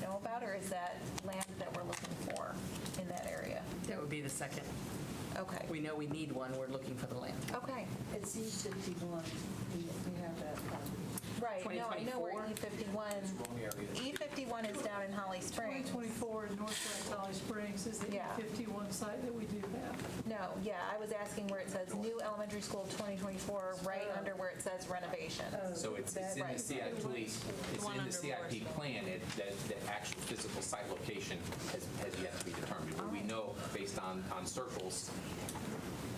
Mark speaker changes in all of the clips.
Speaker 1: know about, or is that land that we're looking for in that area?
Speaker 2: That would be the second.
Speaker 1: Okay,
Speaker 2: We know we need one, we're looking for the land.
Speaker 1: okay,
Speaker 3: It's E fifty-one, we we have that um, property.
Speaker 1: right, no, I know where E
Speaker 4: 2024? It's wrong
Speaker 1: E51,
Speaker 4: area.
Speaker 1: E51 is down in Holly Springs.
Speaker 5: 2024 in Northwest Valley Springs is the
Speaker 1: Yeah.
Speaker 5: E51 site that we do have.
Speaker 1: No, yeah, I was asking where it says new elementary school 2024, right
Speaker 2: Oh.
Speaker 1: under where it says renovations.
Speaker 4: So it's it's in the
Speaker 1: Right.
Speaker 4: CIP, it's in the CIP plan, it- that the actual physical site location has has yet to be determined. But we
Speaker 6: Oh.
Speaker 4: know, based on on circles,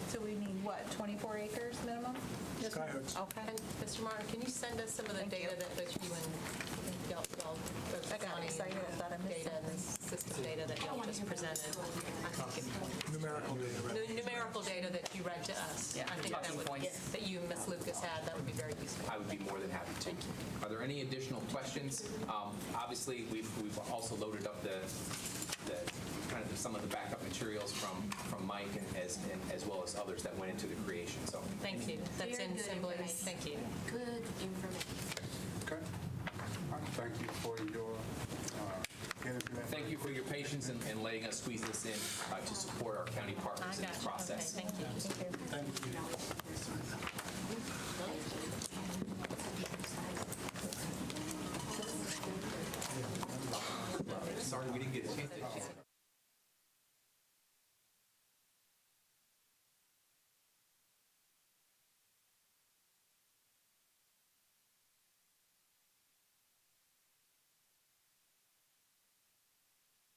Speaker 1: So we need what, 24 acres minimum?
Speaker 7: Skyhooks.
Speaker 1: Okay.
Speaker 6: And Mr. Martin, can you send us some of the
Speaker 1: Thank you.
Speaker 6: data that that you and y'all, y'all, both
Speaker 1: I got
Speaker 6: county
Speaker 1: excited, I thought I missed
Speaker 6: data and the system data that y'all just presented? I think
Speaker 7: Numerical data,
Speaker 6: it- the
Speaker 7: right?
Speaker 6: Numerical data that you read to us.
Speaker 2: Yeah,
Speaker 6: I think that
Speaker 2: talking
Speaker 6: would,
Speaker 2: points.
Speaker 6: that you and Ms. Lucas had, that would be very useful.
Speaker 4: I would be more than happy to. Are there any additional questions? Um, Obviously, we've we've also loaded up the, the- kind of some of the backup materials from from Mike and as and as well as others that went into the creation, so.
Speaker 6: Thank you. That's
Speaker 8: Very
Speaker 6: in
Speaker 8: good
Speaker 6: Assembly.
Speaker 8: advice.
Speaker 6: Thank you.
Speaker 8: Good information.
Speaker 9: Okay. Thank you for your uh, interview.
Speaker 4: Thank you for your patience in in letting us squeeze this in uh, to support our county partners in this
Speaker 6: Okay,
Speaker 4: process.
Speaker 6: thank you.